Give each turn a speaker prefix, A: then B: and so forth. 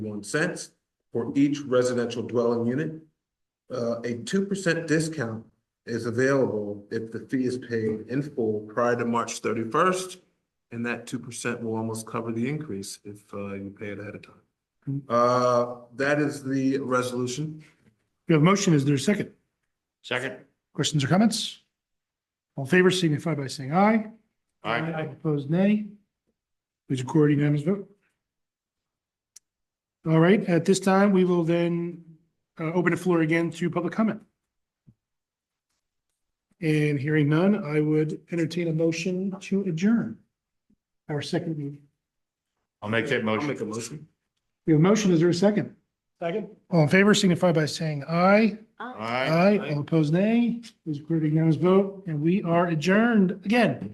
A: one cents for each residential dwelling unit. Uh, a two percent discount is available if the fee is paid in full prior to March thirty-first. And that two percent will almost cover the increase if, uh, you pay it ahead of time. Uh, that is the resolution.
B: We have a motion. Is there a second?
C: Second.
B: Questions or comments? All in favor signify by saying aye.
C: Aye.
B: Opposed, nay. Please record a unanimous vote. All right, at this time, we will then uh, open the floor again to public comment. And hearing none, I would entertain a motion to adjourn our second meeting.
C: I'll make that
A: I'll make a
C: motion.
A: motion.
B: We have a motion. Is there a second?
A: Second.
B: All in favor signify by saying aye.
C: Aye.
B: Aye. All opposed, nay. Please record a unanimous vote, and we are adjourned again.